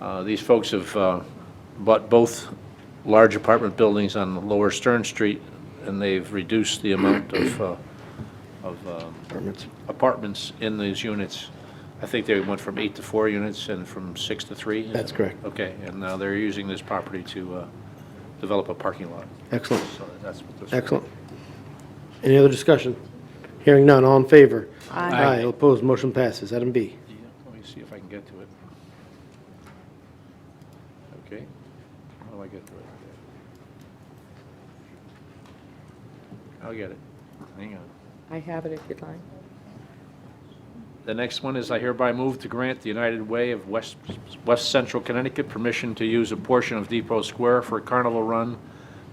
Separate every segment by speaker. Speaker 1: Uh, These folks have uh, bought both large apartment buildings on Lower Stern Street, and they've reduced the amount of, uh, of um,
Speaker 2: Apartments.
Speaker 1: apartments in these units. I think they went from eight to four units and from six to three?
Speaker 2: That's correct.
Speaker 1: Okay, and now they're using this property to uh, develop a parking lot.
Speaker 2: Excellent.
Speaker 1: So that's what this.
Speaker 2: Excellent. Any other discussion? Hearing none, all in favor?
Speaker 3: Aye.
Speaker 2: Aye, all opposed, motion passes. Item B.
Speaker 1: Yeah, Let me see if I can get to it. Okay, how do I get to it? I'll Oh, get it. Hang on.
Speaker 3: I have it if you'd like.
Speaker 1: The next one is I hereby move to grant the United Way of West, West Central Connecticut permission to use a portion of Depot Square for Carnival Run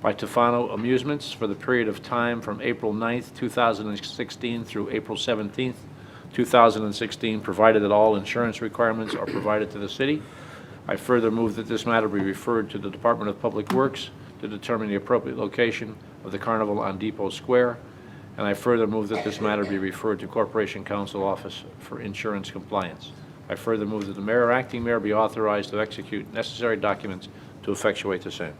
Speaker 1: by Tofano Amusements for the period of time from April 9th, 2016 through April 17th, 2016, provided that all insurance requirements are provided to the city. I further move that this matter be referred to the Department of Public Works to determine the appropriate location of the carnival on Depot Square. And I further move that this matter be referred to Corporation Council Office for insurance compliance. I further move that the mayor or acting mayor be authorized to execute necessary documents to effectuate the same.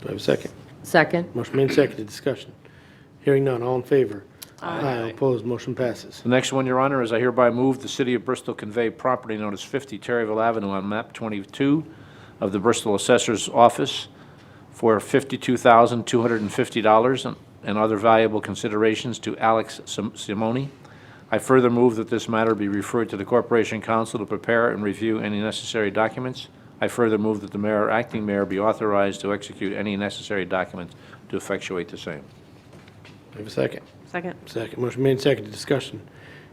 Speaker 2: Do I have a second?
Speaker 3: Second.
Speaker 2: Motion made, and seconded, discussion. Hearing none, all in favor? Aye, all opposed, motion passes.
Speaker 1: The next one, Your Honor, is I hereby move the City of Bristol convey property notice 50 Terryville Avenue on map 22 of the Bristol Assessor's Office for $52,250 and- and other valuable considerations to Alex Sim- Simoni. I further move that this matter be referred to the Corporation Council to prepare and review any necessary documents. I further move that the mayor or acting mayor be authorized to execute any necessary documents to effectuate the same.
Speaker 2: Do I have a second?
Speaker 3: Second.
Speaker 2: Second, motion made, and seconded, discussion.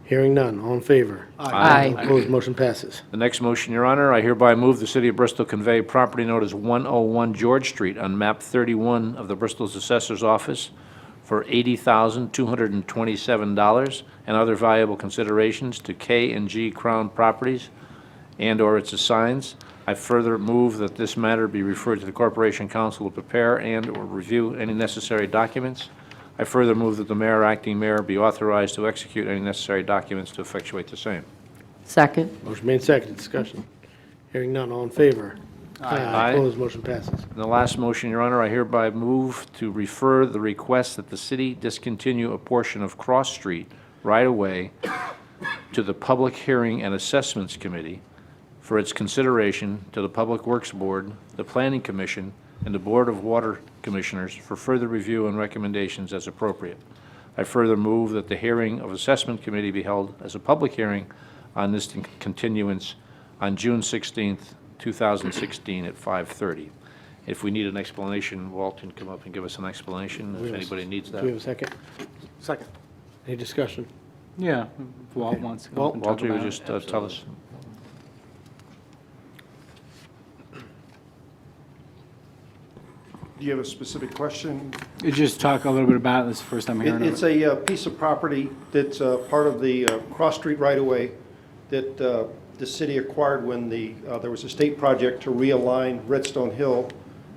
Speaker 2: Hearing none, all in favor?
Speaker 3: Aye.
Speaker 2: All opposed, motion passes.
Speaker 1: The next motion, Your Honor, I hereby move the City of Bristol convey property known as 101 George Street on map 31 of the Bristol's Assessor's Office for $80,227 and other valuable considerations to K and G Crown Properties and/or its assigns. I further move that this matter be referred to the Corporation Council to prepare and/or review any necessary documents. I further move that the mayor, or acting mayor, be authorized to execute any necessary documents to effectuate the same.
Speaker 3: Second.
Speaker 2: Motion made, and seconded, discussion. Hearing none, all in favor? Aye.
Speaker 1: Aye.
Speaker 2: Opposed, motion passes.
Speaker 1: And the last motion, Your Honor, I hereby move to refer the request that the city discontinue a portion of Cross Street right-of-way to the Public Hearing and Assessments Committee for its consideration to the Public Works Board, the Planning Commission, and the Board of Water Commissioners for further review and recommendations as appropriate. I further move that the hearing of Assessment Committee be held as a public hearing on this continuance on June 16th, 2016 at 5:30. If we need an explanation, Walt can come up and give us an explanation if anybody needs
Speaker 2: Do we have
Speaker 1: that.
Speaker 2: a second? Second. Any discussion?
Speaker 4: Yeah, if Walt wants to come up and talk
Speaker 1: Walter, you
Speaker 4: about it.
Speaker 1: just uh, tell us.
Speaker 5: Do you have a specific question?
Speaker 4: You Just talk a little bit about it, this is the first time
Speaker 5: It-
Speaker 4: hearing
Speaker 5: It's
Speaker 4: of it.
Speaker 5: a uh, piece of property that's uh, part of the uh, Cross Street right-of-way that uh, the city acquired when the, uh, there was a state project to realign Redstone Hill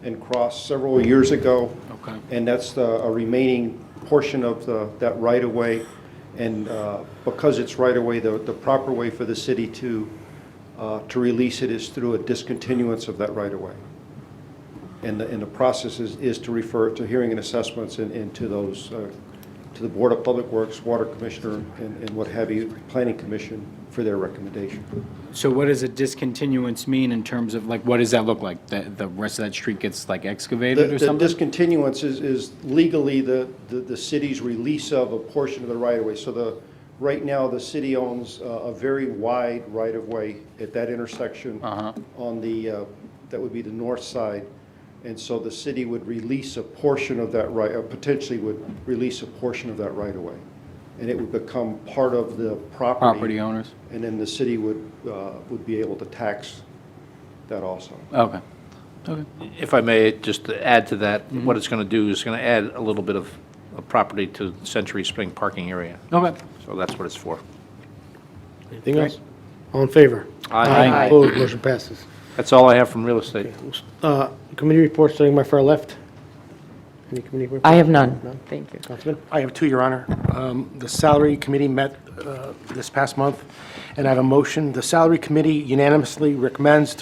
Speaker 5: and Cross several years ago.
Speaker 4: Okay.
Speaker 5: And that's the- a remaining portion of the- that right-of-way. And uh, because it's right-of-way, the the proper way for the city to, uh, to release it is through a discontinuance of that right-of-way. And the, and the process is, is to refer to hearing and assessments and, and to those, uh, to the Board of Public Works, Water Commissioner, and, and what have you, Planning Commission for their recommendation.
Speaker 4: So what does a discontinuance mean in terms of, like, what does that look like? The, the rest of that street gets like
Speaker 5: The
Speaker 4: excavated or
Speaker 5: the
Speaker 4: something?
Speaker 5: discontinuance is, is legally the, the, the city's release of a portion of the right-of-way. So the, right now, the city owns uh, a very wide right-of-way at that intersection
Speaker 4: Uh-huh.
Speaker 5: on the, uh, that would be the north side. And so the city would release a portion of that right, or potentially would release a portion of that right-of-way. And it would become part of the property.
Speaker 4: Property owners?
Speaker 5: And then the city would, uh, would be able to tax that also.
Speaker 4: Okay. Okay.
Speaker 1: If I may, just to add to that, what it's going to do is going to add a little bit of of property to Century Spring parking area.
Speaker 4: Okay.
Speaker 1: So that's what it's for.
Speaker 2: Anything else? All in favor?
Speaker 1: Aye.
Speaker 3: Aye.
Speaker 2: Opposed, motion passes.
Speaker 1: That's all I have from real estate.
Speaker 2: Uh, Committee reports, starting my far left. Any committee reports?
Speaker 3: I have none. Thank you.
Speaker 2: Councilman?
Speaker 6: I have two, Your Honor. Um, The Salary Committee met uh, this past month, and I have a motion. The Salary Committee unanimously recommends